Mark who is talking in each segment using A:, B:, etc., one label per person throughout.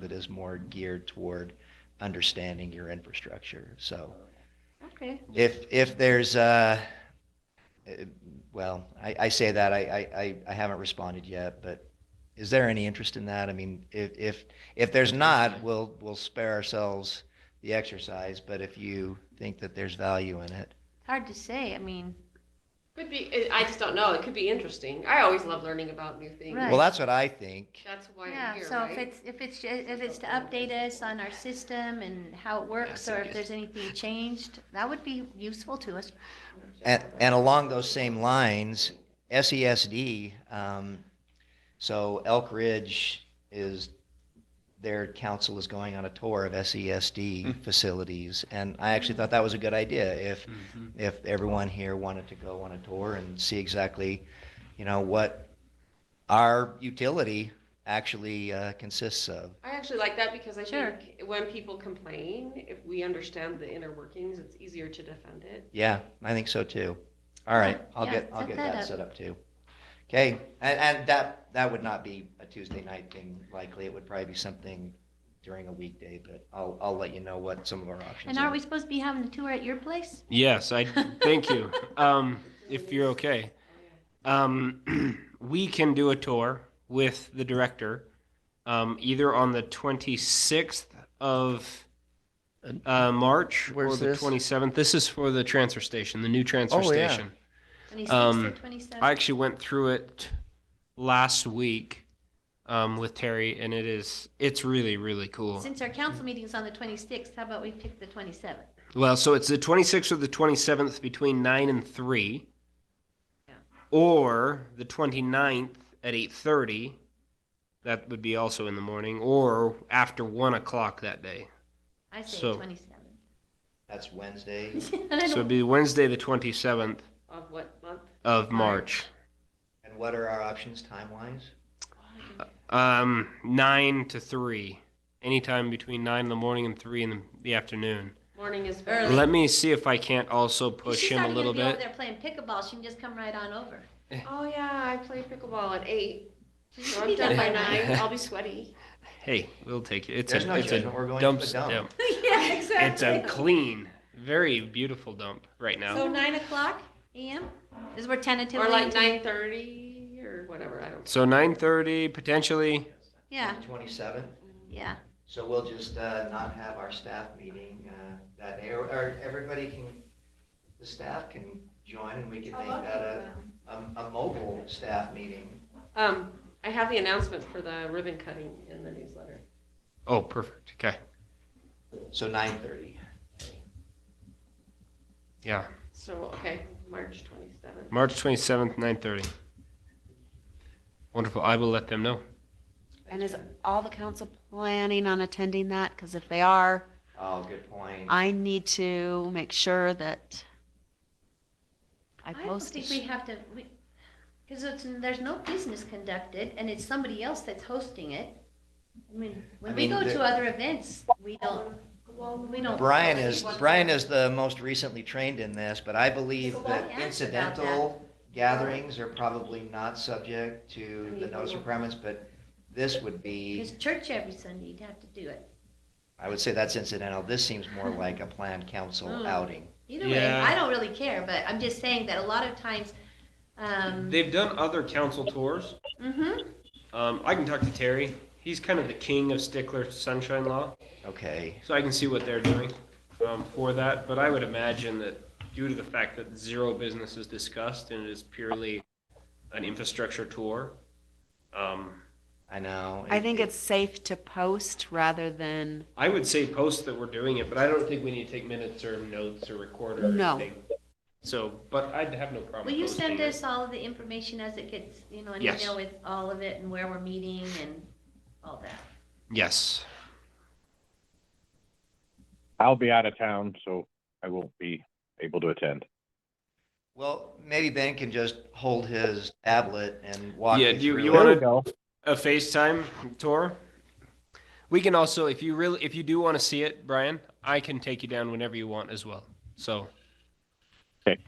A: that is more geared toward understanding your infrastructure. So
B: Okay.
A: if, if there's, uh, eh, well, I, I say that, I, I, I- I haven't responded yet, but is there any interest in that? I mean, if, if, if there's not, we'll, we'll spare ourselves the exercise, but if you think that there's value in it.
B: Hard to say. I mean,
C: Could be. I- I just don't know. It could be interesting. I always love learning about new things.
B: Right.
A: Well, that's what I think.
C: That's why I'm
B: yeah,
C: here,
B: so if
C: right?
B: it's, if it's, if it's to update us on our system and how it works, or if there's anything changed, that would be useful to us.
A: And, and along those same lines, SESD, um, so Elk Ridge is, their council is going on a tour of SESD facilities. And I actually thought that was a good idea if,
D: Mm-hmm.
A: if everyone here wanted to go on a tour and see exactly, you know, what our utility actually uh, consists of.
C: I actually like that because I
B: Sure.
C: think when people complain, if we understand the inner workings, it's easier to defend it.
A: Yeah, I think so too. All right, I'll
B: Yeah,
A: get, I'll
B: set
A: get
B: that
A: that
B: up.
A: set up too. Okay, and, and that, that would not be a Tuesday night thing likely. It would probably be something during a weekday, but I'll, I'll let you know what some of our options
B: And aren't
A: are.
B: we supposed to be having a tour at your place?
E: Yes, I thank you. Um, if you're okay, um, we can do a tour with the director, um, either on the 26th of uh, March or
D: Where's
E: the
D: this?
E: 27th. This is for the transfer station, the new transfer
D: Oh, yeah.
E: station.
B: Twenty-six
E: Um,
B: or
E: I
B: twenty-seven?
E: actually went through it last week um, with Terry, and it is it's really really cool.
B: Since our council meeting's on the twenty-sixth, how about we pick the twenty-seventh?
E: Well, so it's the 26th or the 27th between 9 and 3.
B: Yeah.
E: Or the 29th at 8:30. That would be also in the morning or after 1 o'clock that day.
B: I say
E: So-
B: twenty-seventh.
A: That's Wednesday.
E: So it'd be Wednesday, the 27th
C: Of what month?
E: of March.
A: And what are our options time-wise?
E: Um, 9 to 3. Anytime between 9 in the morning and 3 in the, the afternoon.
C: Morning is
B: Early.
E: Let me see if I can't also push him a little
B: She's not gonna
E: bit.
B: be over there playing pickleball. She can just come right on over.
C: Oh yeah, I play pickleball at eight. So I'm
B: Be done
C: done by
B: by
C: nine. I'll be sweaty.
E: Hey, we'll take it. It's
A: There's
E: a,
A: no
E: it's
A: judgment.
E: a
A: We're going to
E: dump
A: the dump.
E: step.
B: Yeah,
E: It's a clean, very beautiful dump right
B: So
E: now.
B: nine o'clock AM is where tentatively.
C: Or like nine thirty or whatever. I don't.
E: So nine thirty potentially.
B: Yeah,
A: Twenty-seventh.
B: yeah.
A: So we'll just uh, not have our staff meeting uh, that day, or- or everybody can, the staff can join and
B: Oh,
A: we can make that a, a a mobile staff meeting.
C: Um, I have the announcement for the ribbon cutting in the newsletter.
E: Oh, perfect. Okay.
A: So nine thirty.
E: Yeah.
C: So okay, March twenty seventh.
E: March twenty seventh, nine thirty. Wonderful. I will let them know.
F: And is all the council planning on attending that? Because if they are,
A: Oh, good point.
F: I need to make sure that I
B: I don't
F: post
B: think we
F: it.
B: have to, because it's, there's no business conducted and it's somebody else that's hosting it. I mean,
A: I
B: when we
A: mean,
B: go
A: the-
B: to other events, we don't, we don't.
A: Brian is, Brian is the most recently trained in this, but I believe that incidental gatherings are probably not subject to the notice requirements, but this would be,
B: Because church every Sunday, you'd have to do it.
A: I would say that's incidental. This seems more like a planned council outing.
B: Either way,
E: Yeah.
B: I don't really care, but I'm just saying that a lot of times, um,
E: They've done other council tours.
B: mhm,
E: Um, I can talk to Terry. He's kind of the king of stickler sunshine law,
A: Okay,
E: so I can see what they're doing um, for that. But I would imagine that due to the fact that zero business is discussed and it is purely an infrastructure tour, um,
A: I know.
F: I think it's safe to post rather than,
E: I would say post that we're doing it, but I don't think we need to take minutes or notes or record or
F: No.
E: anything. So, but I'd have no problem.
B: will you
E: posting
B: send
E: it.
B: us all of the information as it gets, you know, an
E: Yes.
B: email with all of it and where we're meeting and all that?
E: Yes.
G: I'll be out of town, so I won't be able to attend.
A: Well, maybe Ben can just hold his tablet and walk
E: Yeah,
A: you
E: do you-
A: through
E: you
A: it.
E: wanna-
G: we go.
E: A FaceTime tour. We can also, if you really, if you do want to see it, Brian, I can take you down whenever you want as well. So.
G: Okay.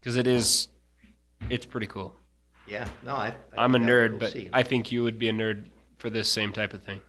E: Because it is, it's pretty cool.
A: Yeah, no, I. I
E: I'm a
A: think that
E: nerd,
A: we'll
E: but
A: see.
E: I think you would be a nerd for this same type of thing.